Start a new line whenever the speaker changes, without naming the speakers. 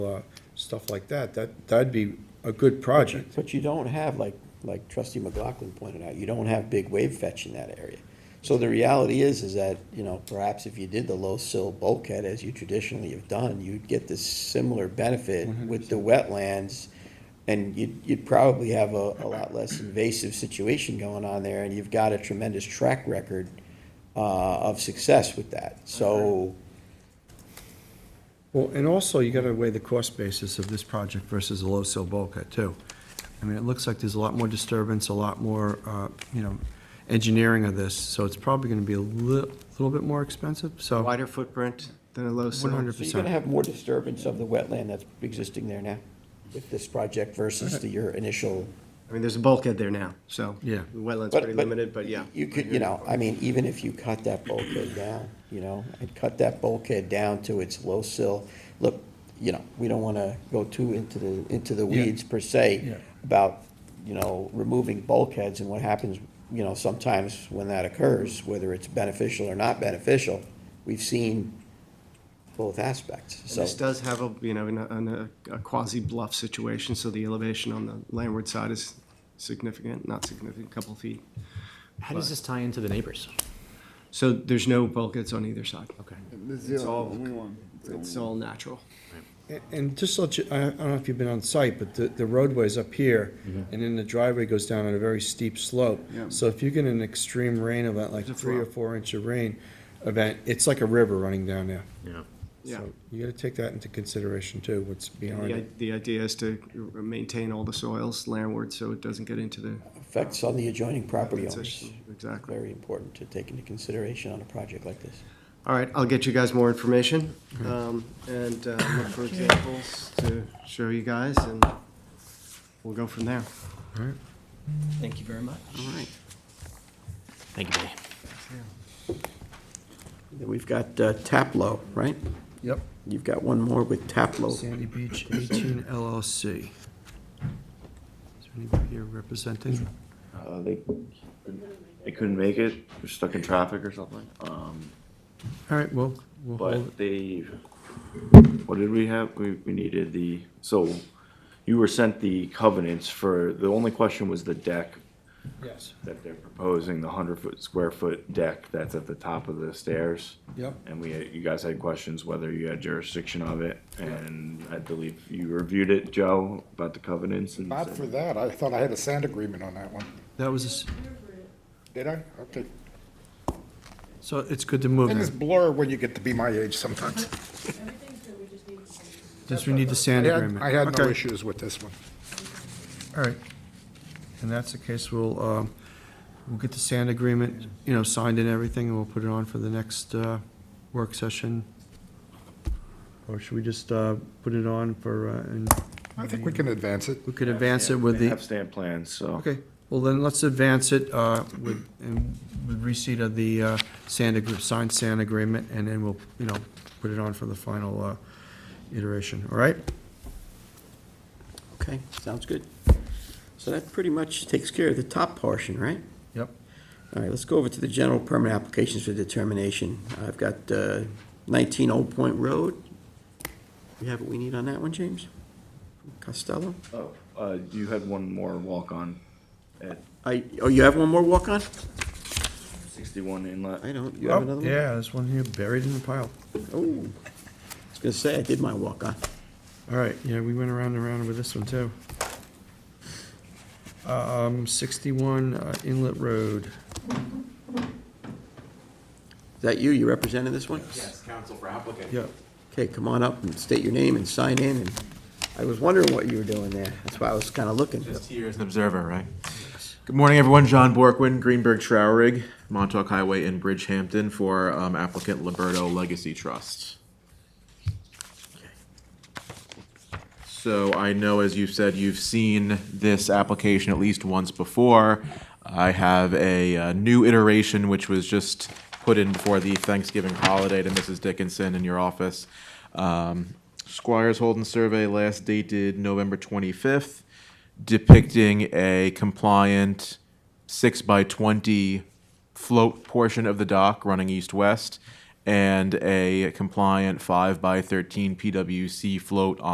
uh, stuff like that, that, that'd be a good project.
But you don't have, like, like trustee McLaughlin pointed out, you don't have big wave fetch in that area. So the reality is, is that, you know, perhaps if you did the low sill bulkhead as you traditionally have done, you'd get this similar benefit with the wetlands. And you'd, you'd probably have a, a lot less invasive situation going on there, and you've got a tremendous track record uh, of success with that. So,
Well, and also, you gotta weigh the cost basis of this project versus a low sill bulkhead, too. I mean, it looks like there's a lot more disturbance, a lot more, uh, you know, engineering of this, so it's probably gonna be a li- little bit more expensive, so.
wider footprint than a low sill.
100.
so you're gonna have more disturbance of the wetland that's existing there now with this project versus the, your initial
I mean, there's a bulkhead there now, so.
Yeah.
The wetland's
But-
pretty
but
limited, but yeah.
You could, you know, I mean, even if you cut that bulkhead down, you know, and cut that bulkhead down to its low sill, look, you know, we don't wanna go too into the, into the
Yeah.
weeds per se
Yeah.
about, you know, removing bulkheads and what happens, you know, sometimes when that occurs, whether it's beneficial or not beneficial, we've seen both aspects,
And
so.
This does have a, you know, in a- in a, a quasi bluff situation, so the elevation on the landward side is significant, not significant, a couple feet.
How does this tie into the neighbors?
So there's no bulkheads on either side.
Okay.
It's all, it's
Mm.
all natural.
And- And just let you, I I don't know if you've been on site, but the the roadway's up here,
Mm-hmm.
and then the driveway goes down on a very steep slope. So if you get an extreme rain event, like
It's a
three or
flow.
four inch of rain event, it's like a river running down there.
Yeah.
Yeah.
So You gotta take that into consideration, too, what's behind
The,
it.
i- the idea is to maintain all the soils landward, so it doesn't get into the.
Effects on the adjoining property owners,
Exactly. Exactly.
very important to take into consideration on a project like this.
All right, I'll get you guys more information, um, and, uh, look for examples to show you guys, and we'll go from there.
Thank you very much.
All right.
Thank you, Billy.
Then We've got uh, Taplow, right?
Yep.
You've got one more with Taplow.
Sandy Beach 18 LLC. Is there anybody here representing?
Uh, they, they couldn't make it, they're stuck in traffic or something, um,
All right, well, we'll hold,
but they, what did we have? We, we needed the, so you were sent the covenants for, the only question was the deck
yes,
that they're proposing, the hundred foot, square foot deck that's at the top of the stairs.
yep.
And we, you guys had questions whether you had jurisdiction of it, and I believe you reviewed it, Joe, about the covenants and.
Not
said-
for that, I thought I had a sand agreement on that one.
That was, a s-
Did I? Okay.
so it's good to move
Things
in.
blur when you get to be my age sometimes.
Just we need the sand
I had-
agreement.
I had no
Okay,
issues with this one.
All right. And that's the case, we'll, um, we'll get the sand agreement, you know, signed and everything, and we'll put it on for the next uh, work session. Or should we just uh, put it on for, uh, and
I think we can advance it.
we could advance it with
They
the.
have stamp plans, so.
Okay, well then, let's advance it uh, with, and with receipt of the uh, sand, agree- signed sand agreement, and then we'll, you know, put it on for the final uh, iteration, all right?
Okay, sounds good. So that pretty much takes care of the top portion, right?
Yep.
All right, let's go over to the general permit applications for determination. I've got uh, 19 Old Point Road. We have what we need on that one, James? Costello?
Oh, uh, you had one more walk-on at
I, oh, you have one more walk-on?
sixty-one inlet.
I don't, you have another
Oh,
one?
yeah, there's one here buried in the pile.
Oh, I was gonna say, I did my walk-on.
All right, yeah, we went around and around with this one, too. Um, 61 uh, Inlet Road.
Is that you? You representing this one?
Yes, counsel for applicant.
Yep.
Okay, come on up and state your name and sign in. And I was wondering what you were doing there. That's why I was kind of looking.
Just here as an observer, right? Good morning, everyone. John Borkwin, Greenberg Trowerig, Montauk Highway in Bridgehampton for um, applicant Liberto Legacy Trust. So I know, as you've said, you've seen this application at least once before. I have a uh, new iteration which was just put in before the Thanksgiving holiday to Mrs. Dickinson in your office. Um, Squires Holden survey last dated November 25th depicting a compliant six by 20 float portion of the dock running east-west and a compliant five by 13 PWC float on.